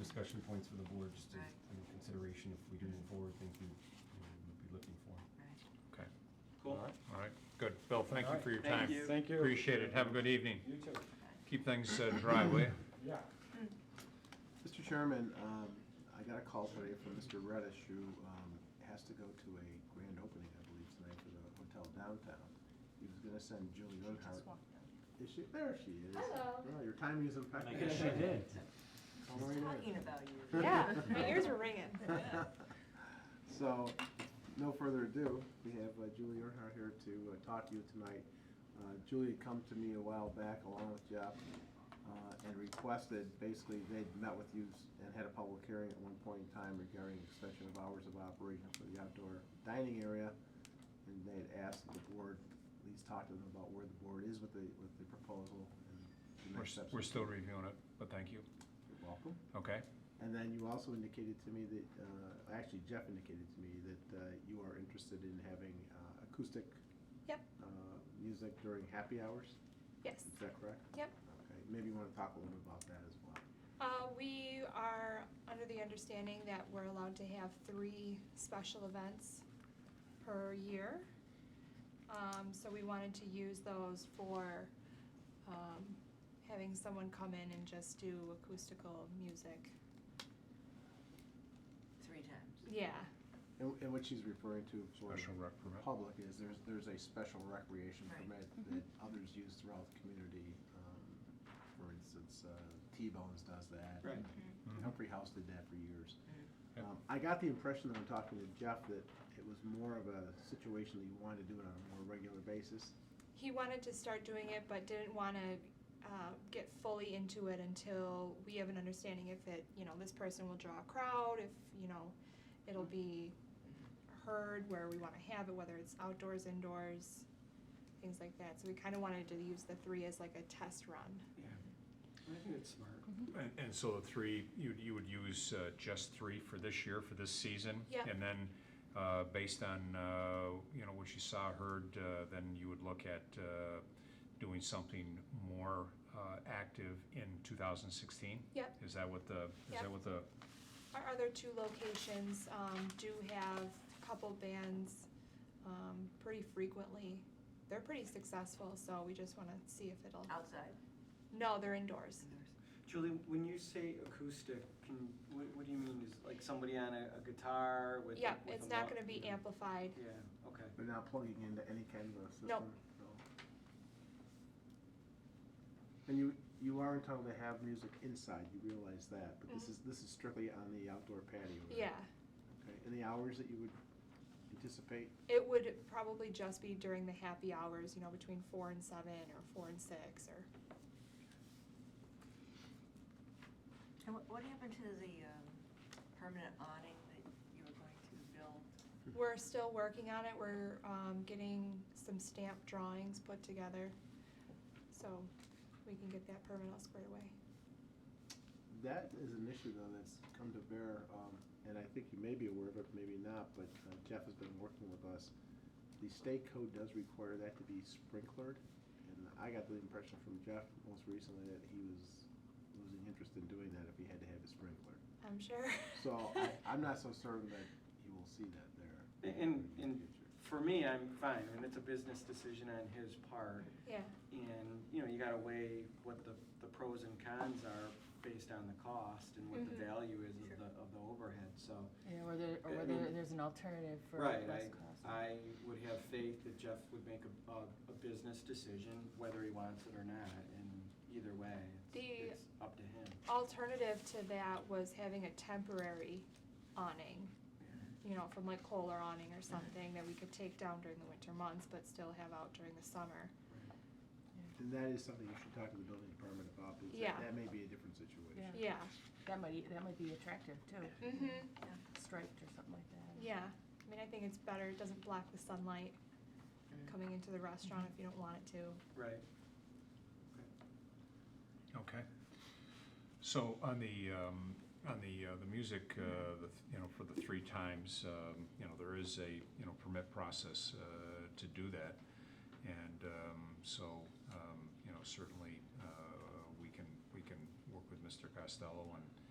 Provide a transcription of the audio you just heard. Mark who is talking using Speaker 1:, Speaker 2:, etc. Speaker 1: discussion points for the board, just to,
Speaker 2: Right.
Speaker 1: under consideration if we do move forward, things we, you know, would be looking for.
Speaker 3: Okay,
Speaker 4: Cool.
Speaker 1: All right.
Speaker 3: all right, good. Bill, thank you for your
Speaker 4: Thank
Speaker 3: time.
Speaker 4: you.
Speaker 1: Thank you.
Speaker 3: Appreciate it. Have a good evening.
Speaker 1: You too.
Speaker 3: Keep things uh, dry, will you?
Speaker 1: Yeah.
Speaker 5: Mr. Chairman, um, I got a call today from Mr. Reddish, who um, has to go to a grand opening, I believe, tonight for the hotel downtown. He was gonna send Julie Earnhardt. Is she, there she is.
Speaker 6: Hello.
Speaker 5: Girl, your timing is impeccable.
Speaker 4: guess she did.
Speaker 5: Very nice.
Speaker 2: Talking about you.
Speaker 6: Yeah, my ears were ringing.
Speaker 5: So, no further ado, we have uh, Julie Earnhardt here to uh, talk to you tonight. Uh, Julie had come to me a while back along with Jeff uh, and requested, basically, they'd met with you s- and had a public hearing at one point in time regarding extension of hours of operation for the outdoor dining area. And they had asked the board, at least talk to them about where the board is with the, with the proposal and the
Speaker 3: We're,
Speaker 5: next
Speaker 3: s-
Speaker 5: steps.
Speaker 3: we're still reviewing it, but thank you.
Speaker 5: You're welcome.
Speaker 3: Okay,
Speaker 5: And then you also indicated to me that, uh, actually Jeff indicated to me that uh, you are interested in having uh, acoustic
Speaker 6: Yep,
Speaker 5: uh, music during happy hours.
Speaker 6: yes,
Speaker 5: Is that correct?
Speaker 6: yep.
Speaker 5: Okay, maybe you want to talk a little bit about that as well.
Speaker 6: Uh, we are under the understanding that we're allowed to have three special events per year. Um, so we wanted to use those for, um, having someone come in and just do acoustical music.
Speaker 2: Three times.
Speaker 6: Yeah,
Speaker 5: And, and what she's referring to for
Speaker 3: special rec
Speaker 5: the
Speaker 3: permit.
Speaker 5: public is there's, there's a special recreation
Speaker 2: Right.
Speaker 5: permit
Speaker 6: Mm-hmm.
Speaker 5: that others use throughout the community. Um, For instance, uh, T-Bones does that.
Speaker 4: Right.
Speaker 3: Mhm.
Speaker 5: Humphrey House did that for years.
Speaker 3: Yeah.
Speaker 5: Um, I got the impression that I'm talking to Jeff that it was more of a situation that you wanted to do it on a more regular basis.
Speaker 6: he wanted to start doing it, but didn't wanna, uh, get fully into it until we have an understanding if it, you know, this person will draw a crowd, if, you know, it'll be heard where we wanna have it, whether it's outdoors, indoors, things like that, so we kinda wanted to use the three as like a test run.
Speaker 4: Yeah. I think it's smart.
Speaker 3: And, and so the three, you, you would use uh, just three for this year, for this season?
Speaker 6: Yeah.
Speaker 3: And then, uh, based on, uh, you know, what you saw, heard, uh, then you would look at uh, doing something more uh, active in 2016?
Speaker 6: Yep.
Speaker 3: Is that what the, is
Speaker 6: Yep.
Speaker 3: that what the,
Speaker 6: Our other two locations, um, do have a couple bands, um, pretty frequently, they're pretty successful, so we just wanna see if it'll,
Speaker 2: Outside.
Speaker 6: no, they're indoors.
Speaker 4: Julie, when you say acoustic, can, what, what do you mean? Is like somebody on a, a guitar with?
Speaker 6: Yeah,
Speaker 4: with
Speaker 6: it's
Speaker 4: a
Speaker 6: not
Speaker 4: mu-
Speaker 6: gonna be amplified.
Speaker 4: Yeah, okay.
Speaker 5: They're not plugging into any kind of a system.
Speaker 6: Nope.
Speaker 5: no. And you, you are entitled to have music inside, you realize that, but this
Speaker 6: Mhm.
Speaker 5: is, this is strictly on the outdoor patio. right?
Speaker 6: Yeah,
Speaker 5: Okay, and the hours that you would anticipate?
Speaker 6: it would probably just be during the happy hours, you know, between four and seven or four and six or.
Speaker 2: And what, what happened to the, um, permanent awning that you were going to build?
Speaker 5: Hmm.
Speaker 6: We're still working on it. We're um, getting some stamp drawings put together, so we can get that permit all squared away.
Speaker 5: That is an issue though that's come to bear, um, and I think you may be aware of it, maybe not, but uh, Jeff has been working with us. The state code does require that to be sprinklered, and I got the impression from Jeff most recently that he was losing interest in doing that if he had to have it sprinklered.
Speaker 6: I'm sure.
Speaker 5: So I, I'm not so certain that you will see that there.
Speaker 4: And,
Speaker 5: the
Speaker 4: and
Speaker 5: future.
Speaker 4: for me, I'm fine. I mean, it's a business decision on his part.
Speaker 6: Yeah,
Speaker 4: And, you know, you gotta weigh what the, the pros and cons are based on the cost and what the
Speaker 6: Mhm.
Speaker 4: value is of
Speaker 2: Sure.
Speaker 4: the, of the overhead, so.
Speaker 7: Yeah, or there,
Speaker 4: I
Speaker 7: or whether
Speaker 4: mean-
Speaker 7: there's an alternative for
Speaker 4: Right, I,
Speaker 7: West Coast.
Speaker 4: I would have faith that Jeff would make a, a, a business decision, whether he wants it or not, and either way, it's,
Speaker 6: The-
Speaker 4: it's up to him.
Speaker 6: alternative to that was having a temporary awning, you know, from like Kohler awning or something that we could take down during the winter months, but still have out during the summer.
Speaker 5: And that is something you should talk to the building department about, because that-
Speaker 6: Yeah.
Speaker 5: that may be a different situation.
Speaker 7: Yeah.
Speaker 6: Yeah.
Speaker 7: That might, that might be attractive too,
Speaker 6: Mm-hmm.
Speaker 7: striped or something like that.
Speaker 6: Yeah, I mean, I think it's better, it doesn't block the sunlight coming into the restaurant if you don't want it to.
Speaker 4: Right.
Speaker 3: okay. So on the, um, on the, uh, the music, uh, the th- you know, for the three times, um, you know, there is a, you know, permit process uh, to do that. And um, so, um, you know, certainly, uh, we can, we can work with Mr. Costello and